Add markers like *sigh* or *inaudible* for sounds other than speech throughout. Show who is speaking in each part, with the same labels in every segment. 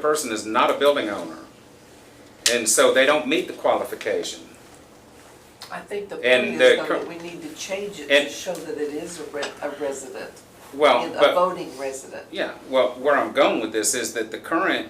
Speaker 1: person is not a building owner. And so they don't meet the qualification.
Speaker 2: I think the point
Speaker 1: And
Speaker 2: is
Speaker 1: the
Speaker 2: though
Speaker 1: cur-
Speaker 2: that we need to change it
Speaker 1: and-
Speaker 2: to show that it is a re- a resident,
Speaker 1: Well,
Speaker 2: and a
Speaker 1: but,
Speaker 2: voting resident.
Speaker 1: yeah, well, where I'm going with this is that the current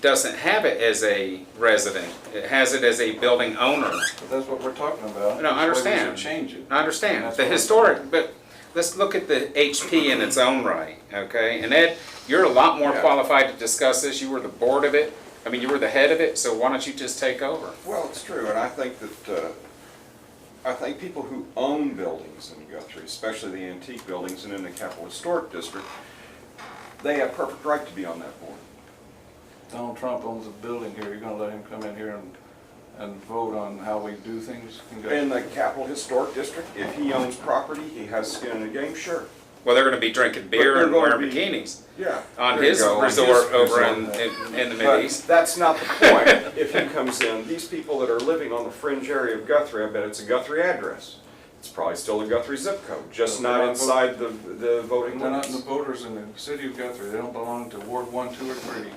Speaker 1: doesn't have it as a resident. It has it as a building owner.
Speaker 3: But that's what we're talking about.
Speaker 1: No, I
Speaker 3: That's why
Speaker 1: understand.
Speaker 3: We should change it.
Speaker 1: I understand,
Speaker 3: That's
Speaker 1: the
Speaker 3: what I'm-
Speaker 1: historic, but let's look at the HP in its own right, okay? And Ed, you're a lot more
Speaker 3: Yeah.
Speaker 1: qualified to discuss this. You were the board of it. I mean, you were the head of it, so why don't you just take over?
Speaker 4: Well, it's true, and I think that, uh, I think people who own buildings in Guthrie, especially the antique buildings and in the Capital Historic District, they have perfect right to be on that board.
Speaker 3: Donald Trump owns a building here, you're gonna let him come in here and, and vote on how we do things? in Guthrie?
Speaker 4: In the Capital Historic District, if he owns property, he has skin in the game, sure.
Speaker 1: Well, they're gonna be drinking beer
Speaker 4: they're
Speaker 1: and wearing
Speaker 4: gonna be-
Speaker 1: bikinis.
Speaker 4: Yeah.
Speaker 1: on
Speaker 4: there you
Speaker 1: his
Speaker 4: go, on his
Speaker 1: resort over
Speaker 4: resort.
Speaker 1: in, in- in the Middle
Speaker 4: But
Speaker 1: East.
Speaker 4: that's not the point. If he comes in, these people that are living on the fringe area of Guthrie, I bet it's a Guthrie address. It's probably still a Guthrie zip code, just
Speaker 3: They're not
Speaker 4: not
Speaker 3: voting.
Speaker 4: inside the, the voting
Speaker 3: They're not the
Speaker 4: limits.
Speaker 3: voters in the city of Guthrie, they don't belong to Ward one, two, or three.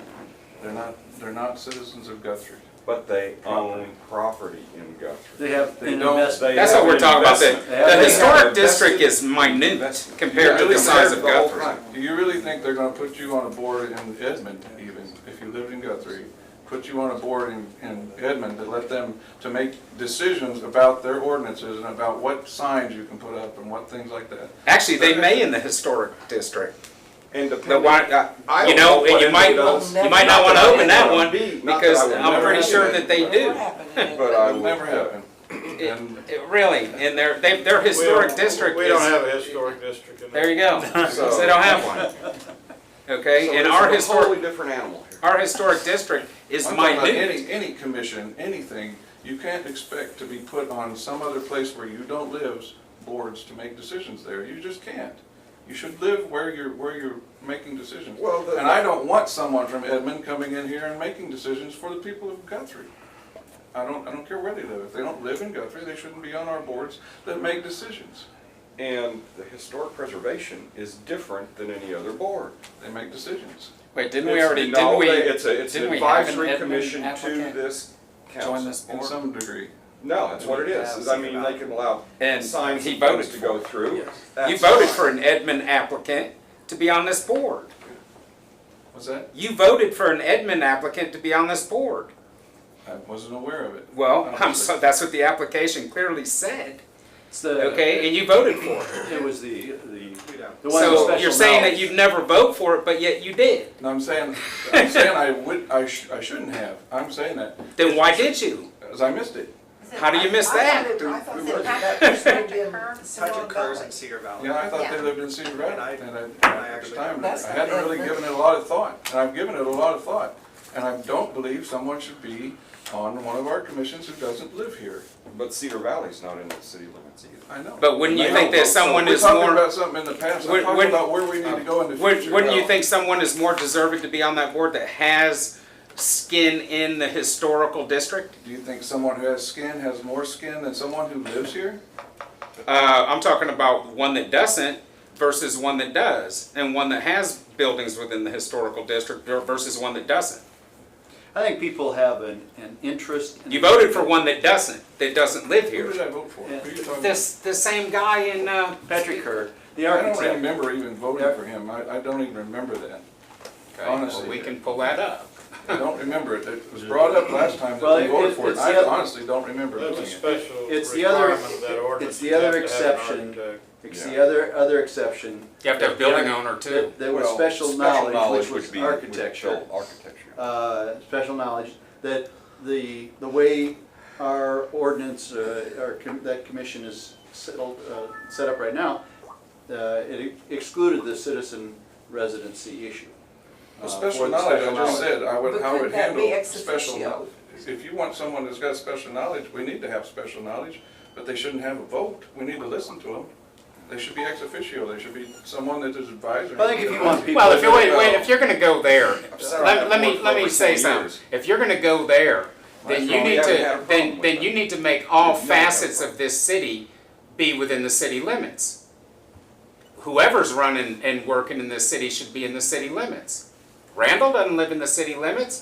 Speaker 3: They're not, they're not citizens of Guthrie.
Speaker 4: But they own property in Guthrie.
Speaker 5: They have
Speaker 3: They
Speaker 5: an
Speaker 3: don't-
Speaker 5: investment.
Speaker 4: They
Speaker 1: That's what
Speaker 4: have
Speaker 1: we're talking about, the,
Speaker 4: investment.
Speaker 5: They have
Speaker 1: the
Speaker 5: an
Speaker 1: historic
Speaker 4: invested-
Speaker 1: district is minute
Speaker 4: Investment.
Speaker 1: compared to
Speaker 4: Yeah,
Speaker 1: the size of
Speaker 4: compared to the whole
Speaker 1: Guthrie.
Speaker 4: thing.
Speaker 3: Do you really think they're gonna put you on a board in Edmond even, if you lived in Guthrie? Put you on a board in, in Edmond to let them, to make decisions about their ordinances and about what signs you can put up and what things like that?
Speaker 1: Actually, they may in the historic district,
Speaker 4: And
Speaker 1: but
Speaker 4: depending.
Speaker 1: why, uh,
Speaker 4: I
Speaker 1: you
Speaker 4: don't
Speaker 1: know,
Speaker 4: what
Speaker 1: and you
Speaker 4: it
Speaker 1: might,
Speaker 4: does.
Speaker 1: you might not
Speaker 2: Not
Speaker 1: wanna
Speaker 2: that I
Speaker 1: open that
Speaker 4: would
Speaker 1: one,
Speaker 4: be, not that
Speaker 1: because
Speaker 4: I would
Speaker 1: I'm
Speaker 3: never
Speaker 1: pretty
Speaker 3: do
Speaker 1: sure
Speaker 3: that,
Speaker 1: that they
Speaker 2: It
Speaker 1: do.
Speaker 2: will happen in it,
Speaker 4: But I
Speaker 3: It'll never happen.
Speaker 1: It-
Speaker 3: And
Speaker 1: it- Really, and their, they, their
Speaker 6: We don't-
Speaker 1: historic district
Speaker 6: We don't
Speaker 1: is,
Speaker 6: have a historic district in
Speaker 1: there
Speaker 6: there.
Speaker 1: you
Speaker 4: *laughs*
Speaker 1: go, so they don't have one.
Speaker 4: So
Speaker 1: Okay, and
Speaker 4: it's
Speaker 1: our
Speaker 4: a Totally
Speaker 1: historic,
Speaker 4: different animal here.
Speaker 1: our historic district is
Speaker 3: I'm talking about
Speaker 1: minute.
Speaker 3: any, any commission, anything, you can't expect to be put on some other place where you don't live, boards to make decisions there, you just can't. You should live where you're, where you're making decisions.
Speaker 4: Well, the-
Speaker 3: And I don't want someone from Edmond coming in here and making decisions for the people of Guthrie. I don't, I don't care where they live, if they don't live in Guthrie, they shouldn't be on our boards that make decisions.
Speaker 4: And the historic preservation is different than any other board.
Speaker 3: They make decisions.
Speaker 1: Wait, didn't we
Speaker 4: It's-
Speaker 1: already,
Speaker 4: no,
Speaker 1: didn't we?
Speaker 4: they- It's a, it's
Speaker 1: didn't
Speaker 4: an
Speaker 1: we have an
Speaker 4: advisory
Speaker 1: Edmund
Speaker 4: commission to
Speaker 1: applicant
Speaker 4: this
Speaker 1: join
Speaker 4: council.
Speaker 1: this
Speaker 3: In
Speaker 1: board?
Speaker 3: some degree,
Speaker 4: No, that's what it is, is I mean, they can allow
Speaker 1: And
Speaker 4: signs
Speaker 1: he
Speaker 4: and things
Speaker 1: voted
Speaker 4: to
Speaker 1: for
Speaker 4: go
Speaker 1: it.
Speaker 4: through.
Speaker 1: You
Speaker 4: That's
Speaker 1: voted
Speaker 4: fine.
Speaker 1: for an Edmund applicant to be on this board.
Speaker 3: was that?
Speaker 1: You voted for an Edmund applicant to be on this board.
Speaker 3: I wasn't aware of it.
Speaker 1: Well, I'm so, that's what the application clearly said,
Speaker 5: It's the-
Speaker 1: okay, and you voted for it.
Speaker 5: It was the, the, the one with
Speaker 1: So
Speaker 5: special
Speaker 1: you're saying that
Speaker 5: knowledge.
Speaker 1: you'd never vote for it, but yet you did.
Speaker 3: No, I'm saying, I'm saying I would, I sh- I shouldn't have, I'm saying that,
Speaker 1: Then why did you?
Speaker 3: because I missed it.
Speaker 1: How do you miss that?
Speaker 7: Patrick Kerr's in Cedar Valley.
Speaker 3: Yeah, I thought they
Speaker 7: Yeah.
Speaker 3: lived in Cedar Valley,
Speaker 7: And I-
Speaker 3: and I,
Speaker 7: and I
Speaker 3: at the
Speaker 7: actually-
Speaker 3: time, I
Speaker 2: That's the
Speaker 3: hadn't
Speaker 2: thing.
Speaker 3: really given it a lot of thought, and I've given it a lot of thought. And I don't believe someone should be on one of our commissions who doesn't live here,
Speaker 4: But Cedar Valley's not in the city limits either.
Speaker 3: I know.
Speaker 1: But wouldn't you think that someone
Speaker 3: We're
Speaker 1: is
Speaker 3: talking
Speaker 1: more,
Speaker 3: about something in the past, I'm
Speaker 1: Wouldn't-
Speaker 3: talking
Speaker 1: wouldn't-
Speaker 3: about where we need to go in the
Speaker 1: wouldn't
Speaker 3: future.
Speaker 1: wouldn't you think someone is more deserving to be on that board that has skin in the historical district?
Speaker 3: Do you think someone who has skin has more skin than someone who lives here?
Speaker 1: Uh, I'm talking about one that doesn't versus one that does, and one that has buildings within the historical district versus one that doesn't.
Speaker 5: I think people have an, an interest. in-
Speaker 1: You voted for one that doesn't, that doesn't live
Speaker 3: Who did
Speaker 1: here.
Speaker 3: I vote for? Who are you talking about?
Speaker 1: This, the same guy in, uh,
Speaker 5: Patrick Kerr, the
Speaker 3: I don't
Speaker 5: architect.
Speaker 3: remember even voting for him, I, I don't even remember that.
Speaker 1: okay, well,
Speaker 3: Honestly.
Speaker 1: we can pull that up.
Speaker 3: I don't remember it. It was brought up last time
Speaker 5: Well,
Speaker 3: that we
Speaker 5: it-
Speaker 3: voted for it.
Speaker 5: it's the
Speaker 3: I
Speaker 5: oth-
Speaker 3: honestly don't remember
Speaker 6: That's a
Speaker 3: doing it.
Speaker 6: special
Speaker 5: It's the other-
Speaker 6: requirement of that ordinance.
Speaker 5: it's the
Speaker 6: You have
Speaker 5: other
Speaker 6: to have an
Speaker 5: exception.
Speaker 6: architect.
Speaker 5: It's the other, other exception.
Speaker 1: You have to have building owner too.
Speaker 5: That there was
Speaker 4: Well,
Speaker 5: special knowledge, which
Speaker 4: would
Speaker 5: was
Speaker 4: be- would
Speaker 5: architecture.
Speaker 4: fill Architecture.
Speaker 5: uh, special knowledge, that the, the way our ordinance, uh, our, com- that commission is settled, uh, set up right now, uh, it excluded the citizen residency issue. uh,
Speaker 3: The
Speaker 5: for
Speaker 3: special
Speaker 5: the
Speaker 3: knowledge, I
Speaker 5: special
Speaker 3: just
Speaker 5: knowledge.
Speaker 3: said, I would,
Speaker 2: But
Speaker 3: how would
Speaker 2: couldn't that be
Speaker 3: handle
Speaker 2: ex
Speaker 3: special
Speaker 2: officio?
Speaker 3: knowledge. If you want someone who's got special knowledge, we need to have special knowledge, but they shouldn't have a vote. We need to listen to them. They should be ex officio. They should be someone that is advisory.
Speaker 5: I think if you want people.
Speaker 1: Well, if you, wait, wait, if you're gonna go there,
Speaker 4: sorry,
Speaker 1: let,
Speaker 4: I've
Speaker 1: let me,
Speaker 4: worked
Speaker 1: let
Speaker 4: for
Speaker 1: me
Speaker 4: over
Speaker 1: say
Speaker 4: 10
Speaker 1: something.
Speaker 4: years.
Speaker 1: If you're gonna go there, then
Speaker 4: That's
Speaker 1: you
Speaker 4: wrong.
Speaker 1: need
Speaker 4: We haven't had a
Speaker 1: to,
Speaker 4: problem
Speaker 1: then,
Speaker 4: with
Speaker 1: then
Speaker 4: that.
Speaker 1: you need to make all
Speaker 4: We've never had a
Speaker 1: facets
Speaker 4: problem.
Speaker 1: of this city be within the city limits. Whoever's running and working in this city should be in the city limits, Randall doesn't live in the city limits.